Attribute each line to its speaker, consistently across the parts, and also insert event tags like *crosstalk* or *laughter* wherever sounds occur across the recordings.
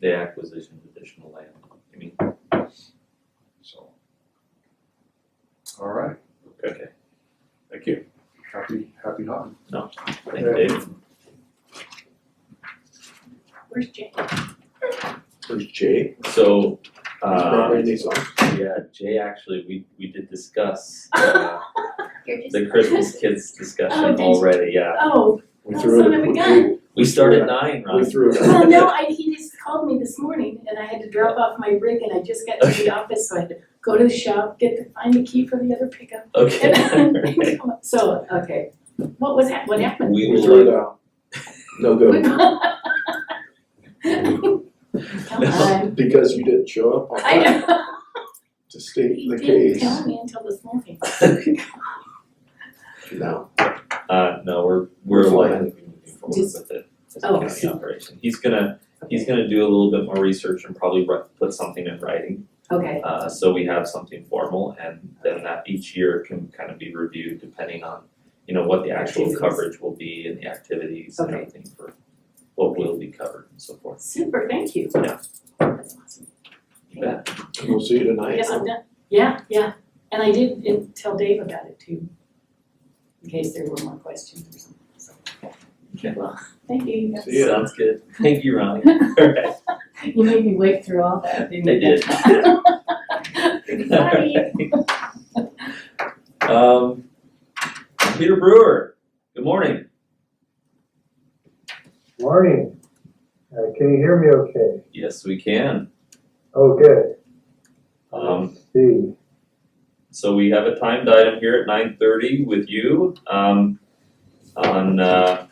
Speaker 1: the acquisition of additional land, I mean,
Speaker 2: so. All right,
Speaker 1: okay,
Speaker 3: Thank you.
Speaker 2: happy, happy hunting.
Speaker 1: thank you, Dave.
Speaker 4: Where's Jay?
Speaker 3: Where's Jay?
Speaker 1: So, uh,
Speaker 3: Right, he's on.
Speaker 1: yeah, Jay, actually, we, we did discuss,
Speaker 4: *laughs*
Speaker 1: uh,
Speaker 4: You're just.
Speaker 1: the Christmas kids
Speaker 4: Oh,
Speaker 1: discussion
Speaker 4: did you?
Speaker 1: already, yeah.
Speaker 4: *laughs* Oh,
Speaker 3: We
Speaker 4: Oh,
Speaker 3: threw
Speaker 4: son
Speaker 3: it-
Speaker 4: of a
Speaker 3: we-
Speaker 4: gun.
Speaker 1: We started nine,
Speaker 3: We
Speaker 1: Ron,
Speaker 3: threw it.
Speaker 4: well, Oh, no, I, he just called me this morning and I had to drop off my rig and I just got to
Speaker 1: Okay. *laughs*
Speaker 4: the office, so I had to go to the shop, get the, find the key for the other pickup.
Speaker 1: *laughs* okay.
Speaker 4: and *laughs* then come up. So, okay, what was hap, what happened?
Speaker 1: We
Speaker 3: We threw
Speaker 1: will,
Speaker 3: it out. No good, *laughs*
Speaker 4: *laughs* Come on.
Speaker 3: because you didn't show up on
Speaker 4: I
Speaker 3: time
Speaker 1: *laughs*
Speaker 4: know,
Speaker 3: to state
Speaker 4: he
Speaker 3: the
Speaker 4: didn't
Speaker 3: case.
Speaker 4: tell me until this morning.
Speaker 3: No,
Speaker 1: uh, no, we're, we're
Speaker 3: Fine.
Speaker 1: likely to be moving forward
Speaker 4: Just-
Speaker 1: with it as a
Speaker 4: Oh,
Speaker 1: county
Speaker 4: see.
Speaker 1: operation. He's gonna, he's gonna do a little bit more research and probably write, put something in writing.
Speaker 4: Okay,
Speaker 1: Uh, so we have something formal and then that each year can kind of be reviewed depending on, you know, what the actual
Speaker 4: Activities.
Speaker 1: coverage will be and the activities and
Speaker 4: Okay.
Speaker 1: everything for what will be covered and so forth.
Speaker 4: super, thank you.
Speaker 1: Yeah.
Speaker 4: That's awesome.
Speaker 3: we'll see you
Speaker 4: I
Speaker 3: tonight.
Speaker 4: guess I'm done. Yeah, yeah, and I did in- tell Dave about it too, in case there were more questions or something, so.
Speaker 1: Okay.
Speaker 4: Well, thank you, you guys.
Speaker 3: See ya.
Speaker 1: Sounds
Speaker 4: *laughs*
Speaker 1: good. Thank you, Ronnie. Alright,
Speaker 4: You made me wait through all that,
Speaker 1: I
Speaker 4: didn't you?
Speaker 1: did.
Speaker 4: *laughs* Sorry.
Speaker 1: *laughs* Um, Peter Brewer, good morning.
Speaker 5: Morning. Uh, can you hear me okay?
Speaker 1: Yes, we can.
Speaker 5: Oh, good.
Speaker 1: Um,
Speaker 5: Let's See,
Speaker 1: So we have a timed item here at nine thirty with you, um, on, uh,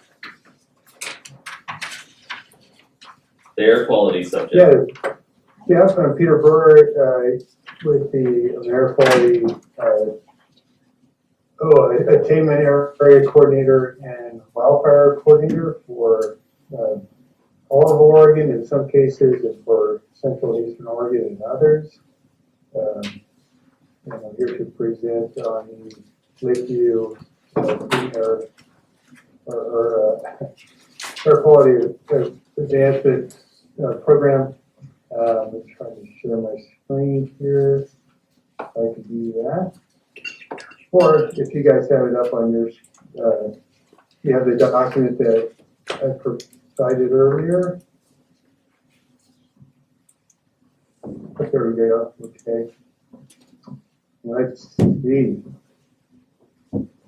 Speaker 1: the air quality subject.
Speaker 5: yeah, yeah, I'm Peter Burr, uh, with the Air Quality, uh, oh, Attainment Area Coordinator and Wildfire Coordinator for, uh, all of Oregon in some cases and for Central and Eastern Oregon and others. Um, and I'm here to present on the Lakeview, uh, clean air, or, or, uh, *laughs* air quality uh, advancement uh, program. Um, I'm trying to share my screen here, if I can do that. Or if you guys have it up on yours, uh, you have the document that I provided earlier. Oh, There we go, okay. Let's see.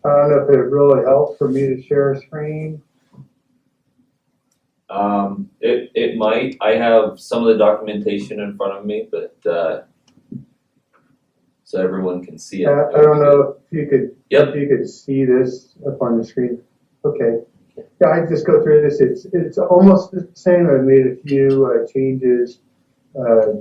Speaker 5: I don't know if it really helps for me to share a screen.
Speaker 1: Um, it, it might, I have some of the documentation in front of me, but, uh, so everyone can see it.
Speaker 5: Uh, I I don't know if you could,
Speaker 1: Yep.
Speaker 5: if you could see this up on the screen. Okay. Yeah, I just go through this. It's, it's almost the same. I made a few uh, changes uh,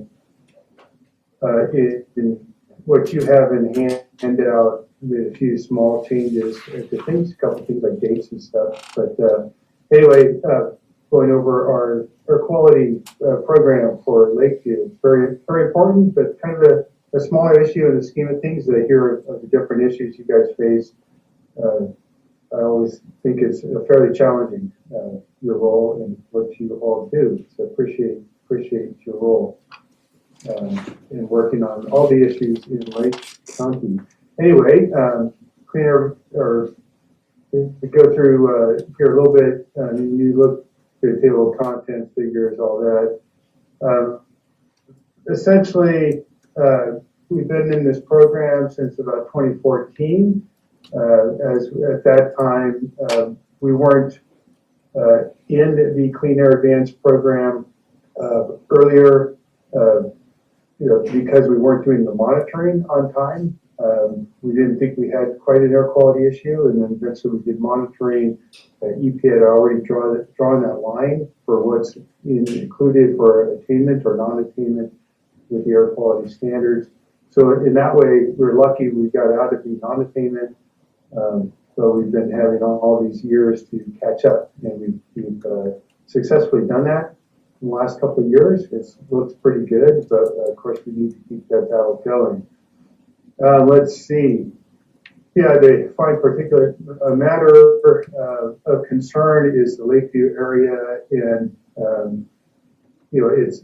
Speaker 5: uh, in in what you have in hand- handout, made a few small changes. uh, to things, a couple things like dates and stuff. But uh, anyway, uh, going over our air quality uh, program for Lakeview, very, very important, but kind of a a smaller issue in the scheme of things. I hear of the different issues you guys face. Uh, I always think it's fairly challenging, uh, your role and what you all do. So appreciate, appreciate your role um, in working on all the issues in Lake County. Anyway, um, clean air, or we go through uh, here a little bit, um, you look through the table of contents, figures, all that. Um, Essentially, uh, We've been in this program since about 2014. Uh, As, at that time, um, we weren't uh, in the Clean Air Advance program uh, earlier, uh, you know, because we weren't doing the monitoring on time. Um, We didn't think we had quite an air quality issue, and then eventually we did monitoring. Uh, EPA had already drawn, drawn that line for what's in- included for attainment or non-attainment with the air quality standards. So in that way, we're lucky we got out of the non-attainment. Um, so we've been having all, all these years to catch up and we've, we've uh, successfully done that in the last couple of years. It's looks pretty good, but uh, of course we need to keep that battle going. Uh, let's see. Yeah, the fine particulate uh, matter uh, of concern is the Lakeview area and, um, you know, it's